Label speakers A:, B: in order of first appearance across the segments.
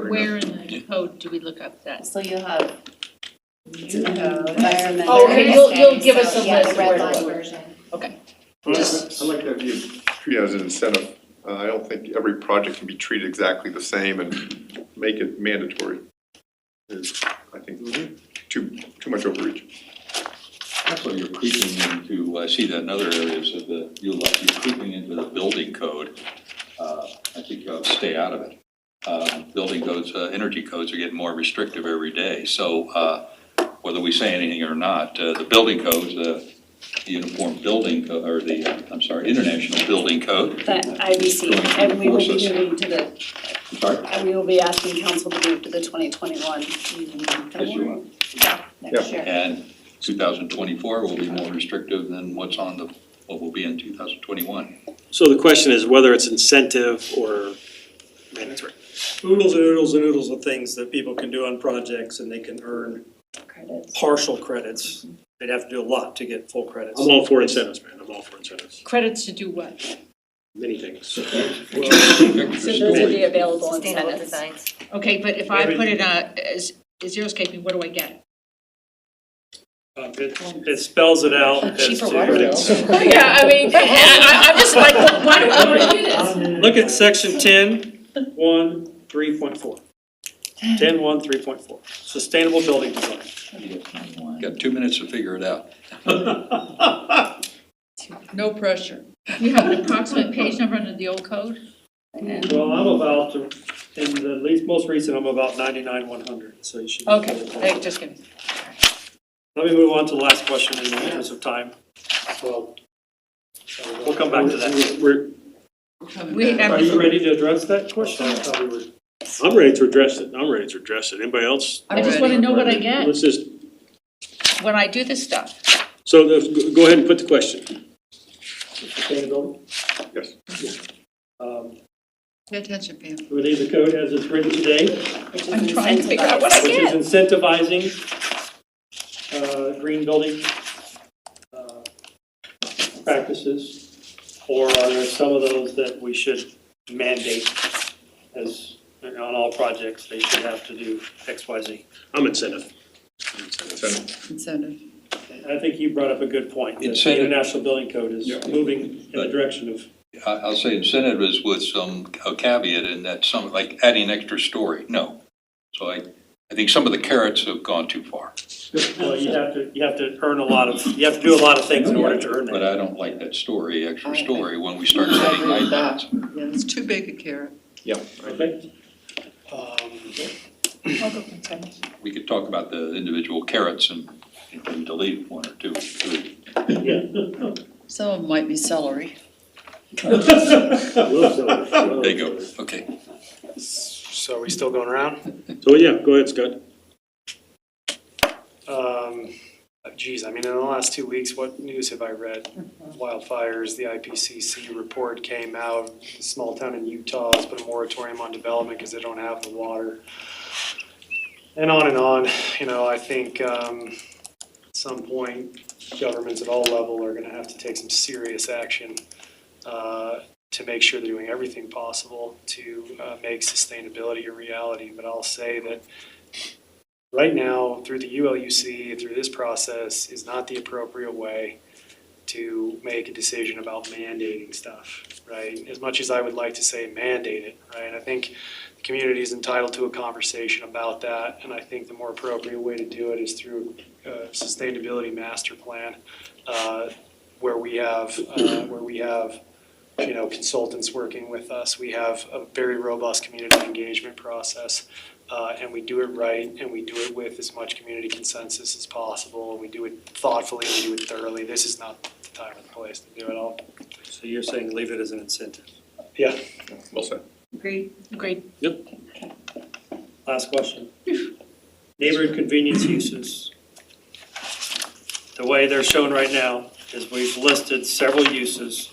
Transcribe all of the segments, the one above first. A: Where, where in the code do we look up that?
B: So you'll have.
C: in the code.
B: Environmental.
A: Oh, okay, you'll- you'll give us a
B: So, yeah, the
A: list
B: red
A: where to
B: line
A: look.
B: version.
D: Well, I I like that view.
E: treat it as an incentive. Uh, I don't think every project can be treated exactly the same and make it mandatory. Is, I think, too, too much overreach.
F: Also, you're creeping into, I see that in other areas of the, you like, you're creeping into the building code. Uh, I think you ought to stay out of it. Uh, Building codes, uh, energy codes are getting more restrictive every day. So uh, whether we say anything or not, uh, the building codes, uh, the Uniform Building, Co- or the, uh, I'm sorry, International Building Code.
C: That IBC, and we will be moving to the,
F: I'm sorry,
C: and we will be asking council to move to the twenty twenty-one.
F: Yes, you will.
C: Yeah, next year.
F: And 2024 will be more restrictive than what's on the, what will be in 2021.
G: So the question is whether it's incentive or mandatory.
H: oodles and oodles and oodles of things that people can do on projects and they can earn
C: Credits.
H: partial credits. They'd have to do a lot to get full credits.
G: I'm all for incentives, man, I'm all for incentives,
A: Credits to do what?
G: many things.
C: So those are the available incentives.
B: designs.
A: Okay, but if I put it on, as, as xeriscaping, what do I get?
H: Uh, It it spells it out as
B: Cheaper water bill.
H: to.
A: Yeah, I mean, I, I- I'm just like, why do I wanna do this?
H: Look at section ten, one, three point four. Ten, one, three point four, sustainable building design.
F: Got two minutes to figure it out.
A: No pressure. You have an approximate page number under the old code?
H: Well, I'm about to, in the least, most recent, I'm about ninety-nine, one hundred, so you should. be
A: Okay,
H: good.
A: hey, just kidding.
H: Let me move on to the last question in the interest of time.
G: We'll
H: We'll come back to that.
G: We're,
A: We
H: Are
A: have,
H: you ready to address that question?
G: I'm ready to address it, I'm ready to address it, anybody else?
A: I just wanna know what I get
G: Let's just,
A: when I do this stuff.
G: so the- go ahead and put the question.
H: Sustainability.
E: Yes.
H: Um,
A: Pay attention, Pam.
H: We leave the code as it's written today,
C: which is
A: I'm trying to figure out what
C: incentivized.
A: I
H: which is
A: get.
H: incentivizing uh, green building uh, practices. Or are there some of those that we should mandate as, on all projects, they should have to do X, Y, Z?
G: I'm incentive.
E: Incentive.
A: Incentive.
H: I think you brought up a good point, that the
F: Incentive.
H: International Building Code is
F: Yeah.
H: moving in the
F: But-
H: direction of
F: I, I'll say incentive is with some a caveat in that some, like adding extra story, no. So I, I think some of the carrots have gone too far.
H: Well, you have to, you have to earn a lot of, you have to do a lot of things in order to earn
F: But
H: that.
F: I don't like that story, extra
I: I- I-
F: story, when we start setting
I: agree with
F: guidelines.
I: Yeah, it's too big a carrot.
E: Yeah.
H: Okay.
F: We could talk about the individual carrots and, and delete one or two, or three.
I: Some of them might be celery.
F: There
G: There
F: you go, okay.
J: So are we still going around?
G: So, yeah, go ahead, Scott.
J: Um, geez, I mean, in the last two weeks, what news have I read? Wildfires, the IPCC report came out, a small town in Utah has put a moratorium on development because they don't have the water. And on and on, you know, I think, um, at some point, governments at all level are gonna have to take some serious action, uh, to make sure they're doing everything possible to, uh, make sustainability a reality. But I'll say that right now, through the ULUC, through this process, is not the appropriate way to make a decision about mandating stuff, right? As much as I would like to say mandate it, right? I think the community is entitled to a conversation about that, and I think the more appropriate way to do it is through a sustainability master plan, uh, where we have, uh, where we have, you know, consultants working with us. We have a very robust community engagement process uh, and we do it right, and we do it with as much community consensus as possible, and we do it thoughtfully, and we do it thoroughly. This is not the time or the place to do it all.
H: So you're saying leave it as an incentive.
J: Yeah,
E: Well said.
A: Agreed. Agreed.
H: Last question. Neighborhood convenience uses. The way they're shown right now is we've listed several uses.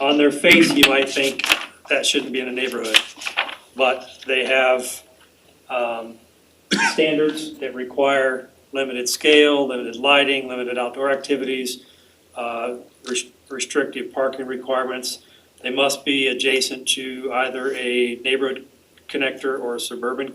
H: On their face, you might think that shouldn't be in a neighborhood, but they have um, standards that require limited scale, limited lighting, limited outdoor activities, uh, res- restrictive parking requirements. They must be adjacent to either a neighborhood connector or a suburban